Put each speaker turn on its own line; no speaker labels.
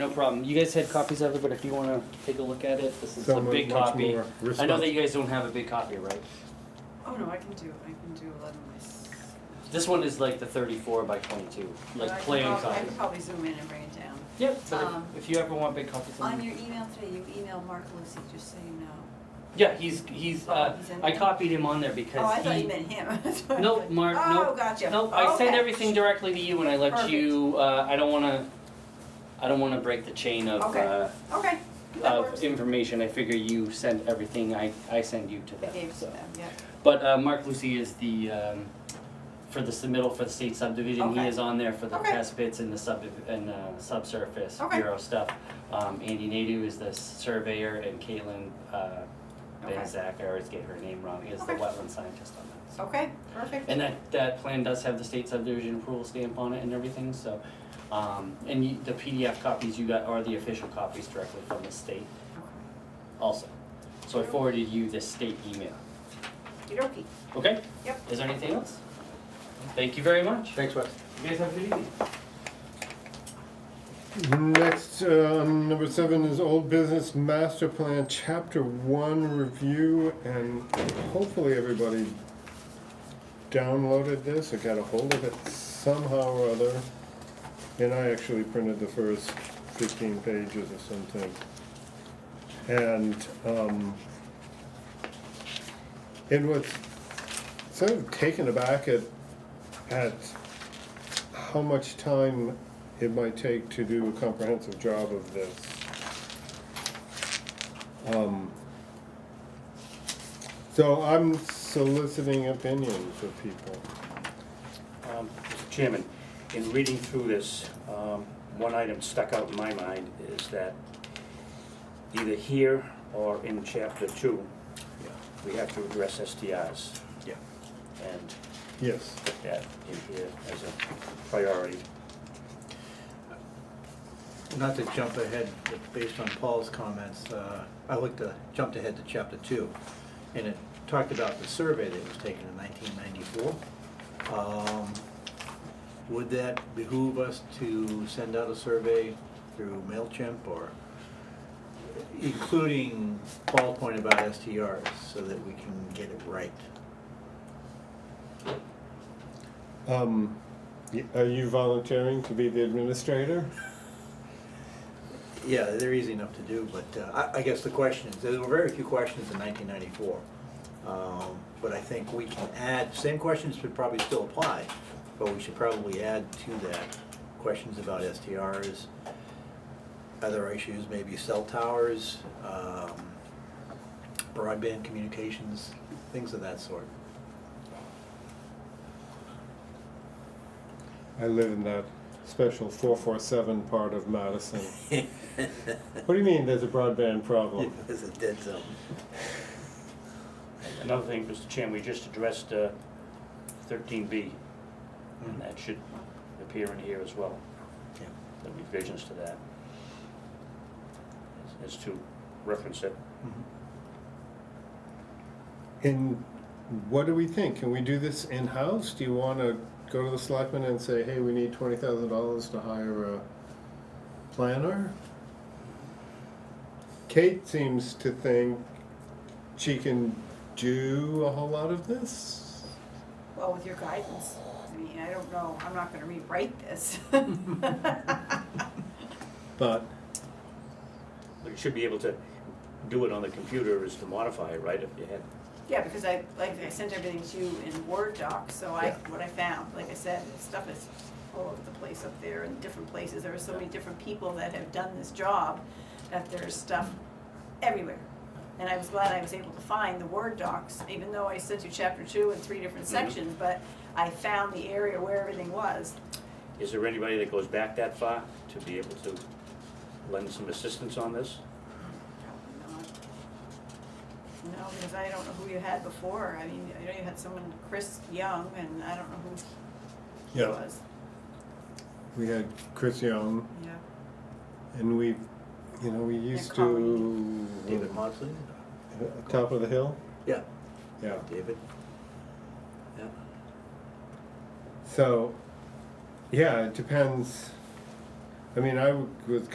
No problem. You guys had copies of it, but if you wanna take a look at it, this is
So
a
mu-
big
much
copy.
more
I know
respons-
that you guys don't have a big copy, right?
Oh no, I can do, I can do eleven myself.
This one is like the thirty-four by twenty-two,
But I
like
can
plain
prob- I
copy.
can probably zoom in and bring it down.
Yep, but if-
Um,
if you ever want big copies, then-
On your email today, you emailed Mark Lucy, just so you know.
yeah, he's, he's, uh,
He's in
I
there?
copied him on there
Oh, I
because
thought you
he.
meant him. That's what I
No,
thought.
Mark,
Oh,
no.
gotcha.
No, I send
Okay.
everything directly to you and I let you, uh, I don't wanna, I don't wanna break the chain of,
Okay.
uh,
Okay, that
of
works.
information. I figure you send everything, I, I send you to
I
them,
gave it to
so.
them, yeah.
But uh, Mark Lucy is the, um, for the submittal for the state subdivision, he
Okay.
is on there for the
Okay.
test bits and the sub, and uh, subsurface
Okay.
bureau stuff. Um, Andy Nadu is the surveyor and Caitlin, uh,
Okay.
Benzak, I always get her name wrong, is the
Okay.
wetland scientist on that. so.
Okay, perfect.
And that, that plan does have the state subdivision approval stamp on it and everything, so, um, and you, the PDF copies you got are the official copies directly from the state also. So I forwarded you the state email.
Okey-dokey.
Okay?
Yep.
Is there anything else? Thank you very much.
Thanks, Wes.
You guys have a good evening.
Next, um, number seven is old business master plan, chapter one review, and hopefully everybody downloaded this or got a hold of it somehow or other. And I actually printed the first fifteen pages or something. And, um, it was sort of taken aback at, at how much time it might take to do a comprehensive job of this. Um, So I'm soliciting opinions of people.
Um, Mr. Chairman, in reading through this, um, one item stuck out in my mind is that either here or in chapter two, we have to address STIs.
Yeah.
And
Yes.
put that in here as a priority.
Not to jump ahead, but based on Paul's comments, uh, I looked to, jumped ahead to chapter two, and it talked about the survey that was taken in nineteen ninety-four. Would that behoove us to send out a survey through MailChimp or including Paul's point about STRs so that we can get it right?
Um, y- Are you volunteering to be the administrator?
Yeah, they're easy enough to do, but uh, I, I guess the questions, there were very few questions in nineteen ninety-four. Um, But I think we can add, same questions would probably still apply, but we should probably add to that questions about STRs, other issues, maybe cell towers, um, broadband communications, things of that sort.
I live in that special 447 part of Madison. What do you mean, there's a broadband problem?
It's a dead zone.
Another thing, Mr. Chairman, we just addressed uh, thirteen B, and that should appear in here as well,
Yeah.
the revisions to that. As as to reference it.
Mhm.
And what do we think? Can we do this in-house? Do you wanna go to the selectmen and say, hey, we need twenty thousand dollars to hire a planner? Kate seems to think she can do a whole lot of this.
Well, with your guidance, I mean, I don't know, I'm not gonna rewrite this. Right,
But
But you should be able to do it on the computer is to modify it, right, if you had.
Yeah, because I, like, I sent everything to you in Word doc, so I,
Yeah.
what I found, like I said, stuff is all over the place up there in different places. There are so many different people that have done this job, that there's stuff everywhere. And I was glad I was able to find the Word docs, even though I sent you chapter two and three different sections, but I found the area where everything was.
Is there anybody that goes back that far to be able to lend some assistance on this?
Probably not. No, because I don't know who you had before. I mean, I know you had someone, Chris Young, and I don't know who he
yeah,
was.
we had Chris Young
Yeah.
and we, you know, we used to
David Mosley?
top of the hill.
Yeah,
Yeah.
David. Yeah.
So, yeah, it depends. I mean, I was